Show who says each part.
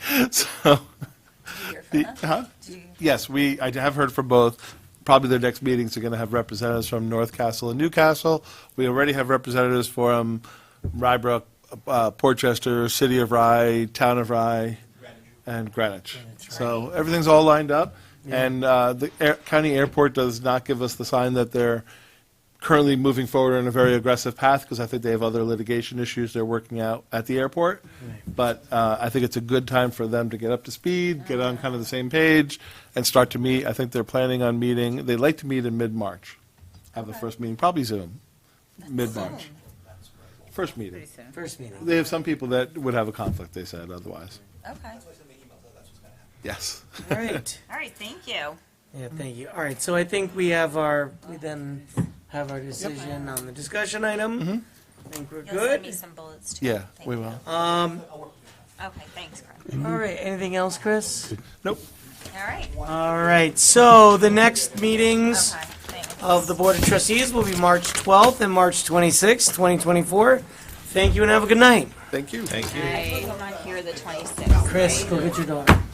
Speaker 1: So,
Speaker 2: hear
Speaker 1: the-
Speaker 2: from them?
Speaker 1: huh?
Speaker 2: Do you-
Speaker 1: Yes, we, I have heard from both. Probably their next meetings are going to have representatives from North Castle and Newcastle. We already have representatives from Rybrook, uh, Portchester, City of Rye, Town of Rye, and Greenwich. So everything's all lined up. And uh, the air- county airport does not give us the sign that they're currently moving forward on a very aggressive path because I think they have other litigation issues they're working out at the airport. But uh, I think it's a good time for them to get up to speed, get on kind of the same page, and start to meet. I think they're planning on meeting, they'd like to meet in mid-March, have the first meeting, probably Zoom, mid-March. First meeting.
Speaker 2: Pretty soon.
Speaker 3: First meeting.
Speaker 1: They have some people that would have a conflict, they said, otherwise.
Speaker 2: Okay.
Speaker 1: Yes.
Speaker 3: All right.
Speaker 2: All right, thank you.
Speaker 3: Yeah, thank you. All right, so I think we have our, we then have our decision on the discussion item. I think we're
Speaker 2: You'll send me
Speaker 3: good.
Speaker 2: some bullets too.
Speaker 1: Yeah,
Speaker 2: Thank
Speaker 1: we
Speaker 2: you.
Speaker 1: will.
Speaker 3: Um,
Speaker 2: Okay, thanks, Craig.
Speaker 3: all right, anything else, Chris?
Speaker 1: Nope.
Speaker 2: All right.
Speaker 3: All right, so the next meetings
Speaker 2: Okay, thanks.
Speaker 3: of the Board of Trustees will be March 12th and March 26th, 2024. Thank you and have a good night.
Speaker 1: Thank you. Thank you.
Speaker 2: I believe I'm on here the 26th.
Speaker 3: Chris,
Speaker 2: right?
Speaker 3: go get your daughter.